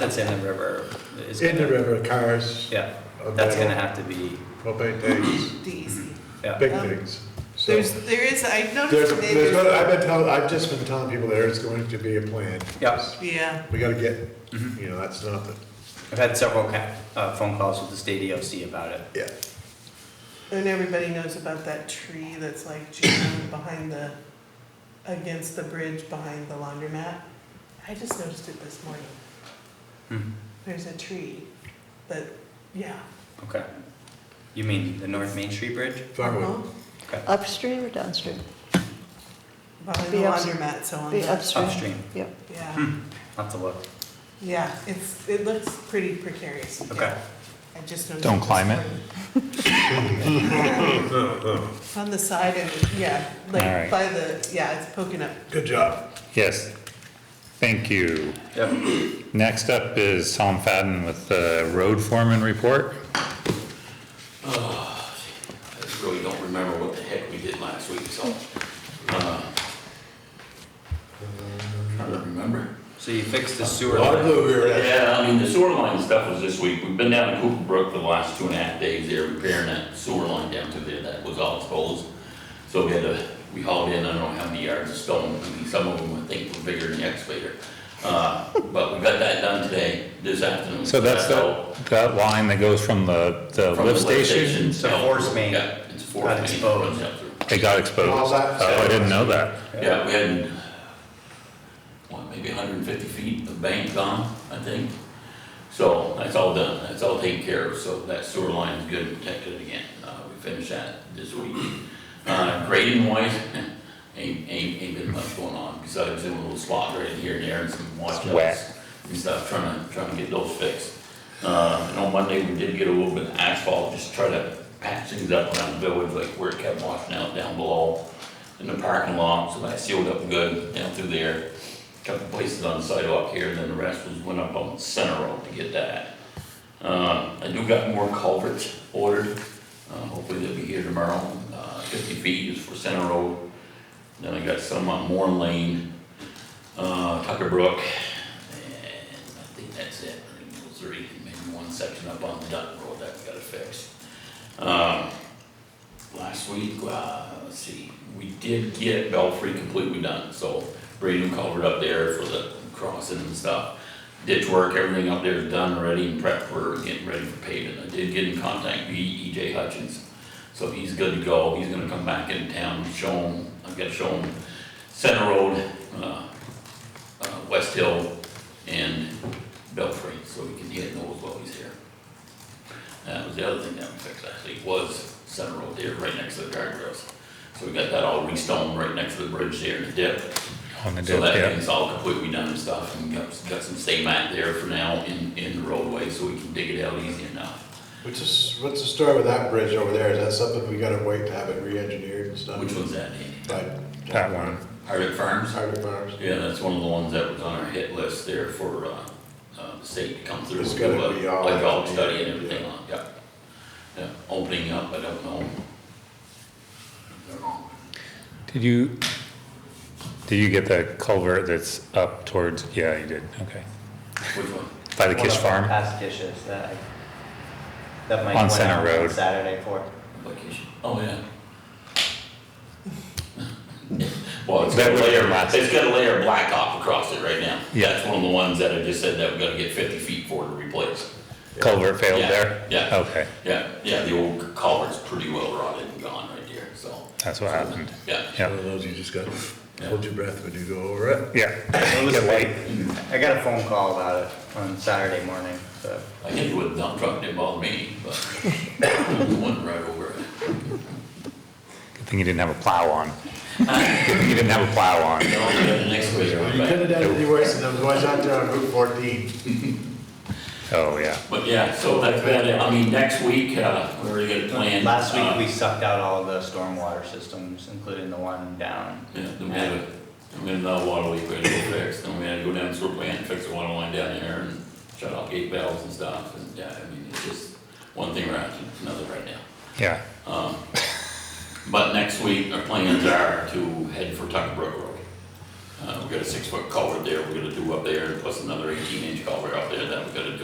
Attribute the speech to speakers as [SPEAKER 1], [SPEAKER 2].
[SPEAKER 1] that's in the river is.
[SPEAKER 2] In the
[SPEAKER 1] gonna-
[SPEAKER 2] river, cars,
[SPEAKER 1] Yeah,
[SPEAKER 2] a
[SPEAKER 1] that's gonna
[SPEAKER 2] metal,
[SPEAKER 1] have to be,
[SPEAKER 2] propane tanks,
[SPEAKER 3] the easy.
[SPEAKER 1] yeah.
[SPEAKER 2] big
[SPEAKER 3] Um,
[SPEAKER 2] things. So
[SPEAKER 3] There's, there is, I
[SPEAKER 2] There's,
[SPEAKER 3] noticed
[SPEAKER 2] a-
[SPEAKER 3] that
[SPEAKER 2] there's, no-
[SPEAKER 3] there's,
[SPEAKER 2] I've been telling, I've just been telling people there is going to be a plan.
[SPEAKER 1] Yeah.
[SPEAKER 3] yeah,
[SPEAKER 2] We gotta get,
[SPEAKER 1] Mhm.
[SPEAKER 2] you know, that's not the,
[SPEAKER 1] I've had several ca- uh, phone calls with the state EOC about it.
[SPEAKER 2] yeah,
[SPEAKER 3] and everybody knows about that tree that's like jammed behind the, against the bridge behind the laundromat. I just noticed it this morning.
[SPEAKER 2] Mm-hmm.
[SPEAKER 1] Hmm,
[SPEAKER 3] There's a tree that, yeah.
[SPEAKER 1] Okay. You mean the North Main Street Bridge?
[SPEAKER 2] firewood.
[SPEAKER 3] Uh-huh.
[SPEAKER 4] Upstream or downstream?
[SPEAKER 3] Behind the
[SPEAKER 4] Be ups-
[SPEAKER 3] laundromat, so on
[SPEAKER 4] Be
[SPEAKER 3] the,
[SPEAKER 4] upstream.
[SPEAKER 1] Upstream.
[SPEAKER 4] Yep.
[SPEAKER 3] yeah,
[SPEAKER 1] Hmm, I'll have to look.
[SPEAKER 3] yeah, it's, it looks pretty precarious. yeah.
[SPEAKER 1] Okay.
[SPEAKER 3] I just noticed.
[SPEAKER 5] Don't
[SPEAKER 3] this
[SPEAKER 5] climb it.
[SPEAKER 3] morning. On the side and, yeah,
[SPEAKER 5] All
[SPEAKER 3] like
[SPEAKER 5] right.
[SPEAKER 3] by the, yeah, it's poking up.
[SPEAKER 2] Good job.
[SPEAKER 5] Yes, thank you.
[SPEAKER 1] Yep.
[SPEAKER 5] Next up is Tom Fadden with the road foreman report.
[SPEAKER 6] I really don't remember what the heck we did last week, so. uh, Trying to remember.
[SPEAKER 1] So you fixed the
[SPEAKER 2] A
[SPEAKER 1] sewer
[SPEAKER 2] lot of
[SPEAKER 1] line.
[SPEAKER 2] blue here. eh?
[SPEAKER 6] Yeah, I mean, the sewer line stuff was this week. We've been down to Cooper Brook for the last two and a half days there repairing that sewer line down through there that was all exposed. So we had to, we hauled in, I don't know how many yards of stone, I mean, some of them I think were bigger than the excavator. Uh, But we got that done today, this afternoon.
[SPEAKER 5] So that's
[SPEAKER 6] all.
[SPEAKER 5] that, that line that goes from the, the
[SPEAKER 6] From the
[SPEAKER 5] lift station?
[SPEAKER 1] to
[SPEAKER 6] down-
[SPEAKER 1] force main.
[SPEAKER 6] Yeah, it's force
[SPEAKER 1] Got
[SPEAKER 6] main.
[SPEAKER 1] exposed.
[SPEAKER 6] runs down through.
[SPEAKER 5] It got exposed.
[SPEAKER 2] All that-
[SPEAKER 5] Oh, I didn't know that.
[SPEAKER 6] Yeah, we had, what, maybe hundred and fifty feet of bank gone, I think. So that's all done, that's all taken care of, so that sewer line is good and protected again. Uh, we finished that this week. Uh, grading wise, ain't, ain't, ain't been much going on, besides doing a little spot right here and there and some watch
[SPEAKER 5] It's wet.
[SPEAKER 6] outs and stuff, trying to, trying to get those fixed. Uh, and on Monday, we did get a little bit of asphalt, just try to patch things up around the village, like where it kept washing out down below in the parking lot, so that sealed up good down through there. Couple places on the sidewalk here, and then the rest was went up on Center Road to get that. Uh, I do got more culverts ordered, uh, hopefully they'll be here tomorrow, uh, fifty feet is for Center Road. Then I got some on Moore Lane, uh, Tucker Brook, and I think that's it. I think those three, maybe one section up on Dutton Road that we gotta fix. Um, last week, uh, let's see, we did get Belfry completely done, so Braden covered up there for the crossing and stuff. Ditch work, everything up there is done already and prep for getting ready for paving. I did get in contact with EJ Hutchins, so he's good to go. He's gonna come back in town, and show him, I've gotta show him Center Road, uh, uh, West Hill and Belfry, so we can hit those while he's here. That was Uh, the other thing that we fixed actually, was Center Road there, right next to the guardrails. So we got that all restoned right next to the bridge there in the dip.
[SPEAKER 5] On the
[SPEAKER 6] So
[SPEAKER 5] dip,
[SPEAKER 6] that
[SPEAKER 5] yeah.
[SPEAKER 6] thing's all completely done and stuff, and got, got some stay mat there for now in, in the roadway, so we can dig it out easier now.
[SPEAKER 2] Which is, what's the story with that bridge over there? Is that something we gotta wait to have it re-engineered and stuff?
[SPEAKER 6] Which one's that, Danny?
[SPEAKER 2] Like-
[SPEAKER 5] That one.
[SPEAKER 6] Hardwick Farms?
[SPEAKER 2] Hardwick Farms.
[SPEAKER 6] Yeah, that's one of the ones that was on our hit list there for, uh, uh, the state to come through.
[SPEAKER 2] It's
[SPEAKER 6] and
[SPEAKER 2] gotta
[SPEAKER 6] do a-
[SPEAKER 2] be all-
[SPEAKER 6] Like all study and everything
[SPEAKER 2] yeah.
[SPEAKER 6] on, yeah. Yeah, opening up, I don't know.
[SPEAKER 5] Did you, did you get the culvert that's up towards, yeah, you did, okay.
[SPEAKER 6] Which one?
[SPEAKER 5] By the
[SPEAKER 1] One
[SPEAKER 5] Kish
[SPEAKER 1] of our
[SPEAKER 5] Farm?
[SPEAKER 1] Past dishes that I, that Mike
[SPEAKER 5] On
[SPEAKER 1] went
[SPEAKER 5] Center
[SPEAKER 1] out on
[SPEAKER 5] Road.
[SPEAKER 1] Saturday for.
[SPEAKER 6] Vacation. Oh, yeah. Well, it's got
[SPEAKER 5] That
[SPEAKER 6] a
[SPEAKER 5] was
[SPEAKER 6] layer,
[SPEAKER 5] their last-
[SPEAKER 6] it's got a layer of blacktop across it right now.
[SPEAKER 5] Yeah.
[SPEAKER 6] That's one of the ones that I just said that we gotta get fifty feet for to replace.
[SPEAKER 5] Culvert failed
[SPEAKER 6] Yeah,
[SPEAKER 5] there?
[SPEAKER 6] yeah.
[SPEAKER 5] Okay,
[SPEAKER 6] Yeah, yeah, the old culvert's pretty well rotted and gone right there, so.
[SPEAKER 5] that's what happened.
[SPEAKER 6] Yeah,
[SPEAKER 2] One of those you just gotta hold your breath when you go over it.
[SPEAKER 5] Yeah. Get light.
[SPEAKER 1] I got a phone call about it on Saturday morning, so.
[SPEAKER 6] I hit it with a dump truck, didn't bother me, but it went right over it.
[SPEAKER 5] Good thing you didn't have a plow on. Good thing you didn't have a plow on.
[SPEAKER 6] No, I got the next week,
[SPEAKER 2] You
[SPEAKER 6] right back.
[SPEAKER 2] could've done it any worse than those ones out there on Route fourteen.
[SPEAKER 5] Oh, yeah.
[SPEAKER 6] But yeah, so that's about it. I mean, next week, uh, we already got it planned.
[SPEAKER 1] Last
[SPEAKER 6] Uh,
[SPEAKER 1] week, we sucked out all the stormwater systems, including the one down.
[SPEAKER 6] Yeah, then we had, a- then we had another water leak we had to go fix, then we had to go down to sewer plant and fix the water line down there and shut off gate valves and stuff, and yeah, I mean, it's just one thing right after another right now.
[SPEAKER 5] Yeah.
[SPEAKER 6] Um, But next week, our plans are to head for Tucker Brook Road. Uh, we got a six-foot culvert there we're gonna do up there, plus another eighteen-inch culvert up there that we gotta do.